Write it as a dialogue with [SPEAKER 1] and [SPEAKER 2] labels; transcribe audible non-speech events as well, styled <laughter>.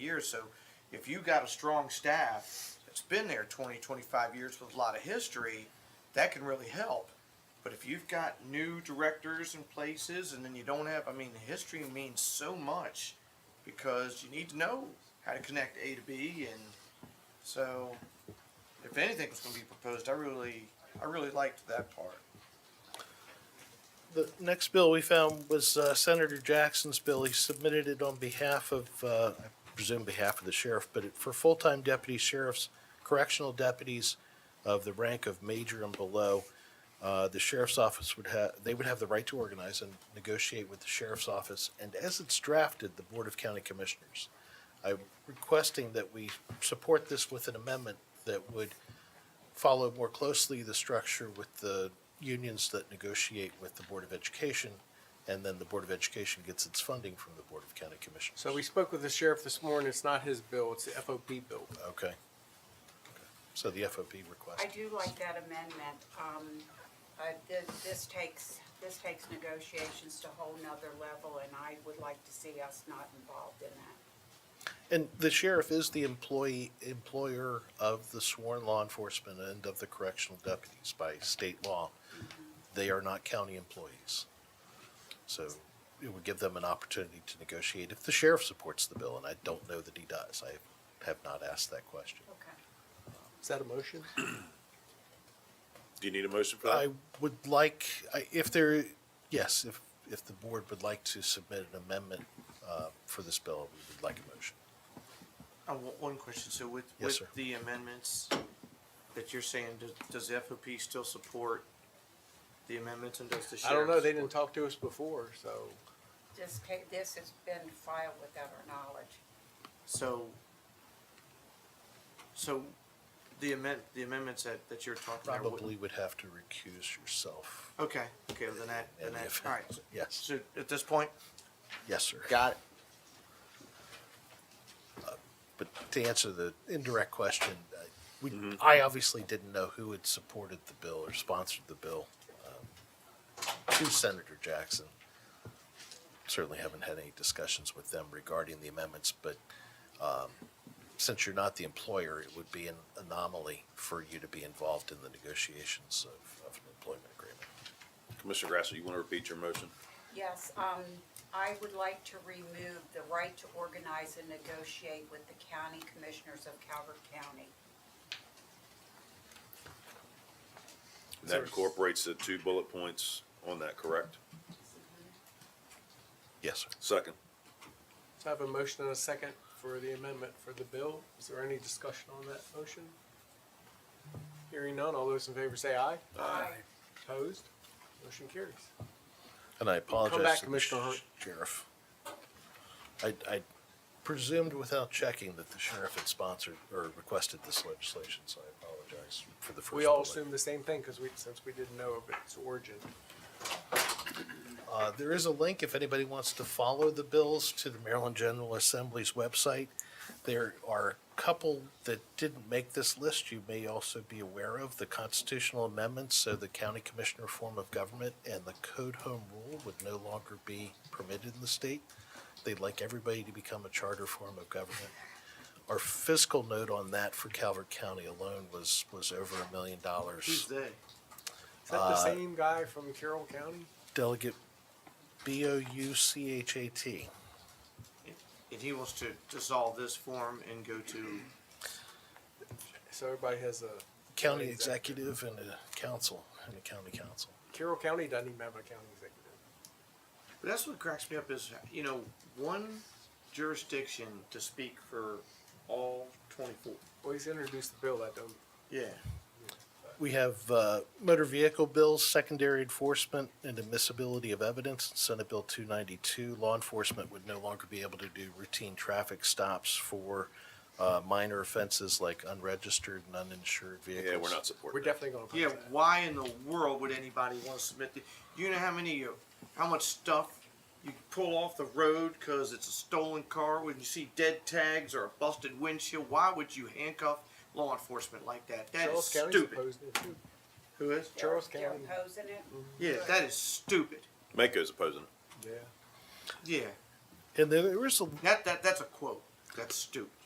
[SPEAKER 1] years. So if you got a strong staff that's been there 20, 25 years with a lot of history, that can really help. But if you've got new directors and places and then you don't have, I mean, history means so much because you need to know how to connect A to B. And so if anything was going to be proposed, I really, I really liked that part.
[SPEAKER 2] The next bill we found was uh, Senator Jackson's bill. He submitted it on behalf of, uh, I presume behalf of the sheriff, but it- for full-time deputy sheriffs, correctional deputies of the rank of major and below, uh, the sheriff's office would have, they would have the right to organize and negotiate with the sheriff's office, and as it's drafted, the Board of County Commissioners. I'm requesting that we support this with an amendment that would follow more closely the structure with the unions that negotiate with the Board of Education, and then the Board of Education gets its funding from the Board of County Commissioners.
[SPEAKER 3] So we spoke with the sheriff this morning. It's not his bill, it's the FOP bill.
[SPEAKER 2] Okay. Okay. So the FOP request.
[SPEAKER 4] I do like that amendment. Um, uh, this, this takes, this takes negotiations to a whole nother level, and I would like to see us not involved in that.
[SPEAKER 2] And the sheriff is the employee, employer of the sworn law enforcement and of the correctional deputies by state law. They are not county employees. So it would give them an opportunity to negotiate if the sheriff supports the bill, and I don't know that he does. I have not asked that question.
[SPEAKER 4] Okay.
[SPEAKER 3] Is that a motion?
[SPEAKER 5] Do you need a motion for
[SPEAKER 2] I
[SPEAKER 5] that?
[SPEAKER 2] would like, I- if there, yes, if, if the board would like to submit an amendment uh, for this bill, we would like a motion.
[SPEAKER 1] I want Uh, one question, so with,
[SPEAKER 2] Yes,
[SPEAKER 1] with
[SPEAKER 2] sir.
[SPEAKER 1] the amendments that you're saying, does, does the FOP still support the amendments and does the sheriff?
[SPEAKER 3] I don't know. They
[SPEAKER 1] support-
[SPEAKER 3] didn't talk to us before, so
[SPEAKER 4] This ca- this has been filed without our knowledge.
[SPEAKER 1] So, so the amend, the amendments that, that you're talking about. wouldn't-
[SPEAKER 2] Probably would have to recuse yourself.
[SPEAKER 1] Okay, okay, well then that, then
[SPEAKER 2] in the
[SPEAKER 1] that,
[SPEAKER 2] event.
[SPEAKER 1] all right.
[SPEAKER 2] <laughs> Yes,
[SPEAKER 1] So at this point?
[SPEAKER 2] yes, sir.
[SPEAKER 1] Got it.
[SPEAKER 2] But to answer the indirect question, uh, we,
[SPEAKER 1] Mm-hmm.
[SPEAKER 2] I obviously didn't know who had supported the bill or sponsored the bill. um, To Senator Jackson. Certainly haven't had any discussions with them regarding the amendments, but um, since you're not the employer, it would be an anomaly for you to be involved in the negotiations of, of an employment agreement.
[SPEAKER 5] Commissioner Grassley, you want to repeat your motion?
[SPEAKER 4] Yes, um, I would like to remove the right to organize and negotiate with the county commissioners of Calvert County.
[SPEAKER 5] And That incorporates the two bullet points on that, correct?
[SPEAKER 2] Yes, sir.
[SPEAKER 5] Second.
[SPEAKER 3] so I have a motion and a second for the amendment for the bill. Is there any discussion on that motion? Hearing none, all those in favor say aye.
[SPEAKER 4] Aye.
[SPEAKER 3] Opposed? Motion carries.
[SPEAKER 2] And I apologize.
[SPEAKER 3] back,
[SPEAKER 2] to the
[SPEAKER 3] Commissioner Hart.
[SPEAKER 2] Sheriff. I, I presumed without checking that the sheriff had sponsored or requested this legislation, so I apologize for the first.
[SPEAKER 3] We all
[SPEAKER 2] delay.
[SPEAKER 3] assumed the same thing because we, since we didn't know of its origin.
[SPEAKER 2] Uh, there is a link if anybody wants to follow the bills to the Maryland General Assembly's website. There are a couple that didn't make this list you may also be aware of, the constitutional amendments, so the county commissioner form of government and the code home rule would no longer be permitted in the state. They'd like everybody to become a charter form of government. Our fiscal note on that for Calvert County alone was, was over a million dollars.
[SPEAKER 1] Who's they?
[SPEAKER 3] Is that the same guy from Carroll County?
[SPEAKER 2] Delegate B O U C H A T.
[SPEAKER 1] And he wants to dissolve this form and go to,
[SPEAKER 3] So everybody has a,
[SPEAKER 2] county
[SPEAKER 3] County executive.
[SPEAKER 2] executive and a council, and a county council.
[SPEAKER 3] Carroll County doesn't even have a county executive.
[SPEAKER 1] but that's what cracks me up is, you know, one jurisdiction to speak for all twenty-four.
[SPEAKER 3] Well, he's introduced the bill. That don't
[SPEAKER 1] Yeah.
[SPEAKER 2] We have uh, motor vehicle bills, secondary enforcement, and admissibility of evidence. Senate Bill 292, law enforcement would no longer be able to do routine traffic stops for uh, minor offenses like unregistered and uninsured vehicles.
[SPEAKER 5] Yeah, we're not
[SPEAKER 3] We're
[SPEAKER 5] supporting that.
[SPEAKER 3] definitely gonna.
[SPEAKER 1] Yeah,
[SPEAKER 3] oppose that.
[SPEAKER 1] why in the world would anybody want to submit the, you know how many, uh, how much stuff you pull off the road because it's a stolen car, when you see dead tags or a busted windshield, why would you handcuff law enforcement like that? That is
[SPEAKER 3] Charles County's
[SPEAKER 1] stupid.
[SPEAKER 3] opposed to it too.
[SPEAKER 1] Who is?
[SPEAKER 4] They're-
[SPEAKER 3] Charles
[SPEAKER 4] They're
[SPEAKER 3] County.
[SPEAKER 4] opposing it?
[SPEAKER 1] Yeah, that is stupid.
[SPEAKER 5] Mako's opposing it.
[SPEAKER 3] Yeah.
[SPEAKER 1] Yeah,
[SPEAKER 2] And there there is a
[SPEAKER 1] that, that, that's a quote. That's stupid.